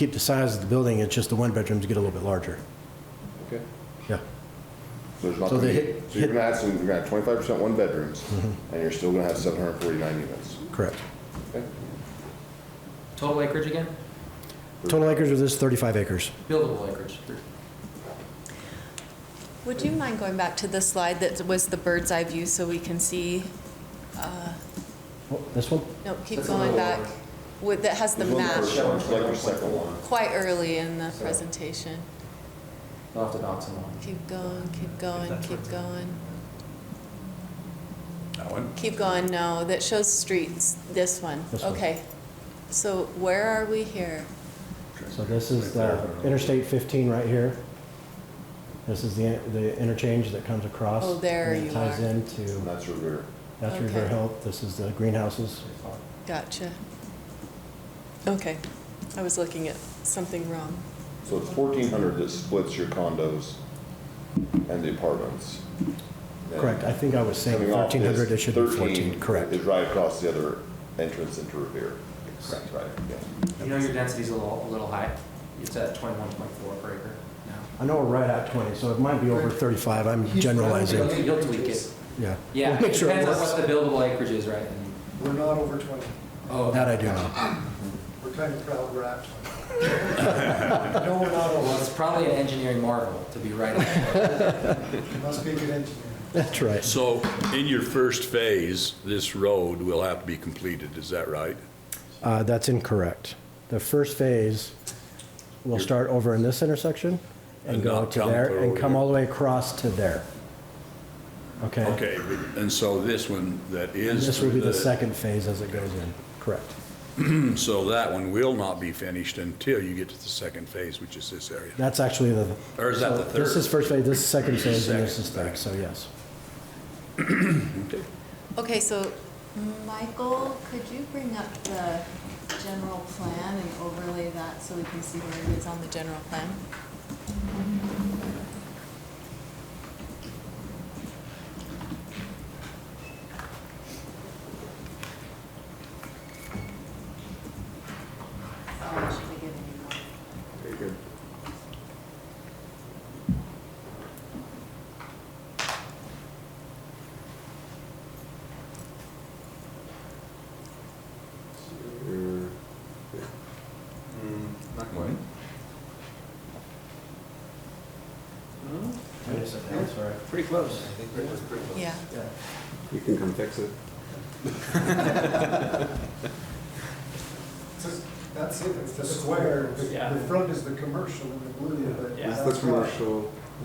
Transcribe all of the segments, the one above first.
keep the size of the building, it's just the one bedrooms get a little bit larger. Okay. Yeah. There's not So gonna they be, hit- so you're hit- Mm-hmm. gonna have, so you're gonna have twenty-five percent one bedrooms, and you're still gonna have seven hundred and forty-nine units. Correct. Okay. Total acreage again? Total acres of this, 35 acres. Buildable acreage. Would you mind going back to the slide that was the bird's eye view so we can see? uh, Oh, This one? No, keep That's a little going back. over. With, that has the There's one map first one, Select your second one. quite early in the So- presentation. I'll have to knock some off. Keep going, keep going, that's keep where going. That one? Keep going, no, that shows streets, this one. This one. Okay. So where are we here? So this is the Interstate 15 right here. This is the the interchange that comes across. Oh, there and it you Ties are. And into, that's your rear. that's River Okay. Hill. This is the greenhouses. Gotcha. Okay, I was looking at something wrong. So it's fourteen hundred that splits your condos and the apartments. And Correct. I think I was saying coming off this, 1,300, it should be 13 14, correct. Is right across the other entrance into Revere. Correct. Right, yeah. You know your density's a little, a little high. It's at twenty-one point four per acre now. I know we're right at 20, so it might be over 35. I'm generalizing. You'll- You'll tweak it. Yeah. Yeah, We'll it Make sure it depends on what works. the buildable acreage is, right? And- We're not over 20. Oh, That I do know. We're kind of proud we're at 20. No, we're not Well, over. it's probably an engineering marvel to be right. on. You must be a good engineer. That's right. So in your first phase, this road will have to be completed, is that right? Uh, That's incorrect. The first phase will start over in this intersection and And go not to come there and through come here. all the way across to there. Okay? Okay, and so this one that And is. This will be the second phase as it goes in. Correct. So that one will not be finished until you get to the second phase, which is this area. That's actually the. Or is that the so This third? is first phase, this is second phase, and this Second, is third, so yes. Okay. Okay, so Michael, could you bring up the general plan and overlay that so we can see where it is on the general plan? Sorry, I should have given you one. Very good. Pretty close. Yeah. You can come fix it. It's just- That's it, it's the square. The Yeah. the front is the commercial in the blue, but Yeah. This that's is the why- commercial,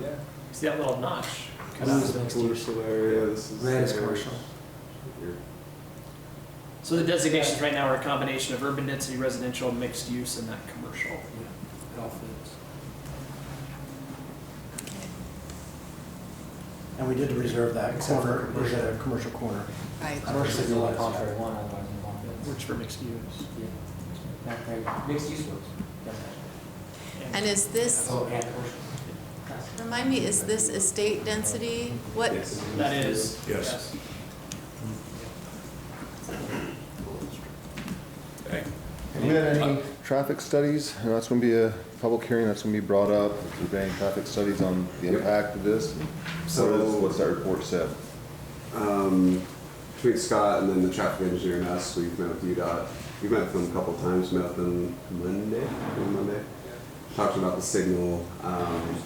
Yeah. See that little notch? this is the commercial area, this is. Red is the- commercial. Your- So the designations right now are a combination of urban density, residential, mixed use, and that commercial. Yeah, It all fits. And we did reserve that Except for corner, was a commercial corner. Right. I don't think you'll have contrary one, otherwise you won't Works for mixed use. fit. Yeah. Mixed use works. That's actually- And is this, Oh, and commercial. remind me, is this estate density? What, Yes. That is. Yes. Okay. Have you had any traffic studies? And that's gonna be a public hearing, that's gonna be brought up. Have there been any traffic studies on the Yep. impact of this? And What is, So- what's that report said? Um, Between Scott and then the traffic engineer and us, we've met with UDOT, we've met with them a couple of times, met with them Monday, on Monday. Talked about the signal. Um,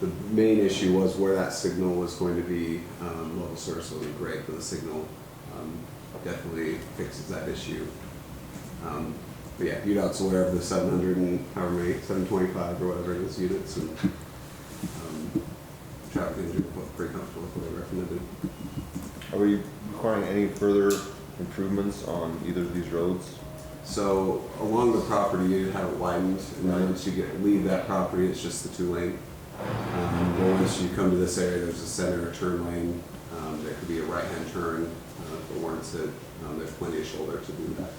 The main issue was where that signal was going to be, um, level service wasn't great, but the signal um, definitely fixes that issue. Um, But yeah, UDOT's aware of the 700 and however many, 725 or whatever it is units and um, traffic engineer was pretty comfortable with what they recommended. Are we requiring any further improvements on either of these roads? So along the property, you have it widened, and then Right. once you get, leave that property, it's just the two lane. Um, but once you come to this area, there's a center turn lane, um, there could be a right-hand turn, uh, if it warrants it, um, there's plenty of shoulder to do that.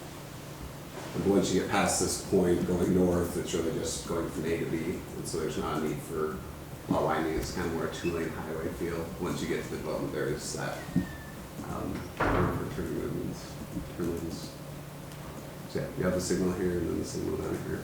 But once you get past this point, going north, it's really just going from A to B, and so there's not a need for lot widening, it's kind of more a two-lane highway feel. Once you get to the development, there is that, um, room for turn movements, turn lanes. So yeah, you have the signal here and then the signal down here.